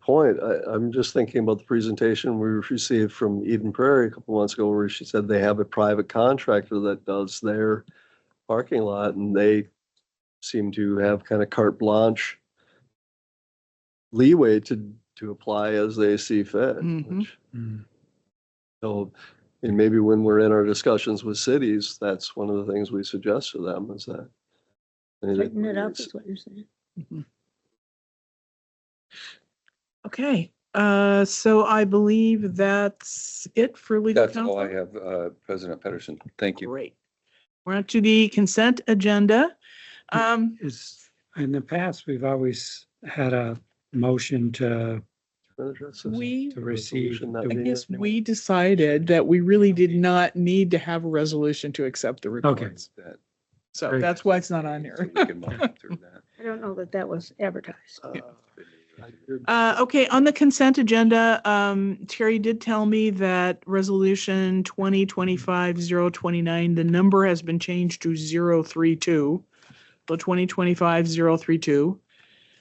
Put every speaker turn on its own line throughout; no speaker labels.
point, I, I'm just thinking about the presentation we received from Eden Prairie a couple months ago where she said they have a private contractor that does their parking lot and they seem to have kind of carte blanche leeway to, to apply as they see fit.
Mhm.
which- So, and maybe when we're in our discussions with cities, that's one of the things we suggest to them is that.
Tighten it up is what you're saying.
Okay, uh, so I believe that's it for legal
That's all I
counsel.
have, uh, President Pedersen. Thank you.
Great. We're on to the consent agenda. Um,
is, in the past, we've always had a motion to,
we,
to receive.
Resolution that
Do
I
we-
we-
guess we decided that we really did not need to have a resolution to accept the reports.
That-
So
Very
that's why it's not on
so
here.
we can monitor that.
I don't know that that was advertised.
Uh, I did-
Uh, okay, on the consent agenda, um, Terry did tell me that resolution twenty twenty-five zero twenty-nine, the number has been changed to zero three two. So twenty twenty-five zero three two.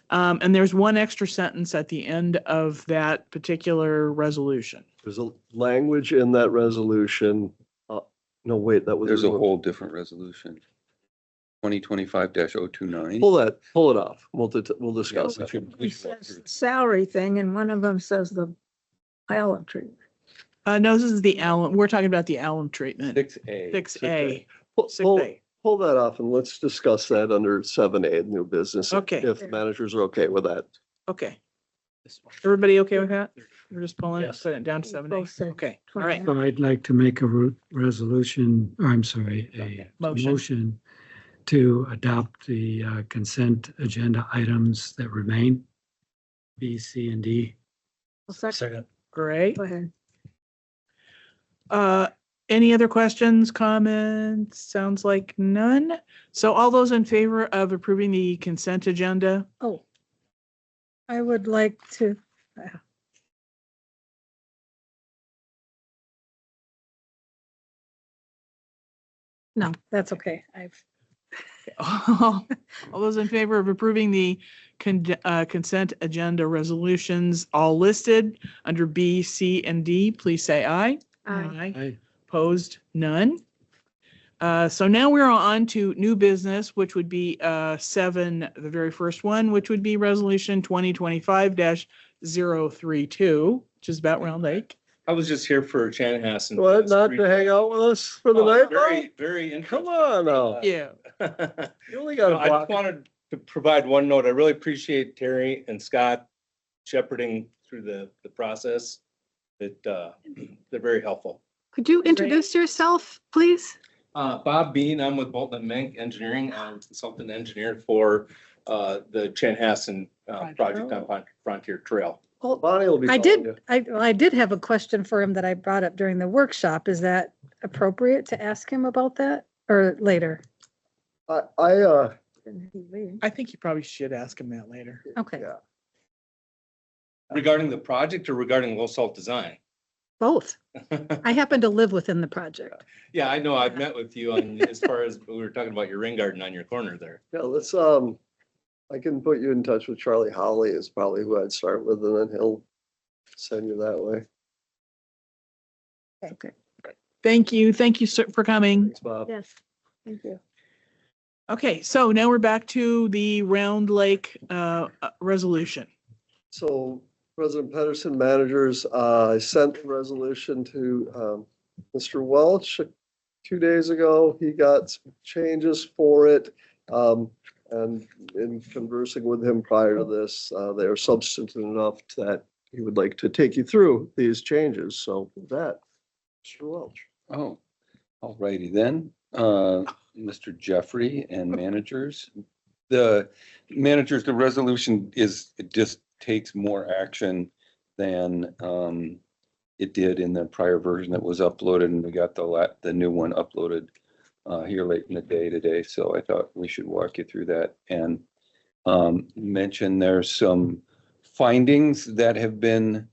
Um, and there's one extra sentence at the end of that particular resolution.
There's a language in that resolution. uh, No, wait, that was.
There's a whole different resolution. Twenty twenty-five oh 29
Pull that, pull it off. We'll, dit- we'll discuss
we
that.
should-
He
we should walk
says
through it.
salary thing and one of them says the alum treatment.
Uh, no, this is the alum, we're talking about the alum treatment,
Six A.
six
sick
A,
day. Pull-
six
Pull,
A.
pull that off and let's discuss that under seven A, new business. if-
Okay.
If the managers are okay with that.
Okay. Everybody okay with that? We're just pulling it, putting it down to seven
Both
A?
said
Okay, all right.
29.
So I'd like to make a ru- resolution, or I'm sorry, a
Motion.
motion to adopt the uh, consent agenda items that remain, B, C, and D.
Well, sec-
Great.
Go ahead.
Uh, any other questions, comments? Sounds like none. So all those in favor of approving the consent agenda?
Oh. I would like to, no, that's okay. I've,
All those in favor of approving the con- uh, consent agenda resolutions, all listed under B, C, and D, please say aye.
I
I
Opposed? None. Uh, So now we're on to new business, which would be uh, seven, the very first one, which would be Resolution 2025-032, which is about Round Lake.
I was just here for Chanhassen.
What, not to hang out with us for the
Oh,
night?
Very, very
though?
interesting.
Come on now.
Yeah.
I
You only got a
just
block.
wanted to provide one note. I really appreciate Terry and Scott shepherding through the, the process. That, uh, they're very helpful.
Could you introduce yourself, please?
Uh, Bob Bean, I'm with Bolton and Mink Engineering, I'm a consultant engineer for, uh, the Chanhassen, uh,
Frontier.
project on Fron- Frontier Trail.
Bonnie will be
I
calling you.
did, I, well, I did have a question for him that I brought up during the workshop. Is that appropriate to ask him about that or later?
I, I, uh,
I think you probably should ask him that later.
Okay,
yeah,
Regarding the project or regarding low salt design?
both. I happen to live within the project.
Yeah, I know. I've met with you on, as far as, we were talking about your rain garden on your corner there.
yeah, let's, um, I can put you in touch with Charlie Holly is probably who I'd start with and then he'll send you that way.
Okay.
Thank you. Thank you sir, for coming.
Thanks, Bob.
Yes, thank you.
Okay, so now we're back to the Round Lake uh, uh, resolution.
So President Pedersen, managers, uh, I sent the resolution to um, Mr. Welch two days ago. He got some changes for it. um, And in conversing with him prior to this, uh, they are substantive enough that he would like to take you through these changes. So with that, Mr. Welch.
Oh, all righty then, uh, Mr. Jeffrey and managers. The managers, the resolution is, it just takes more action than um it did in the prior version that was uploaded and we got the la, the new one uploaded uh here late in the day today, so I thought we should walk you through that and um mention there's some findings that have been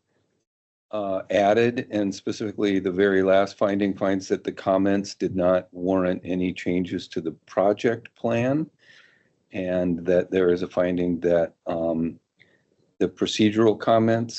uh, added, and specifically the very last finding finds that the comments did not warrant any changes to the project plan. And that there is a finding that um, the procedural comments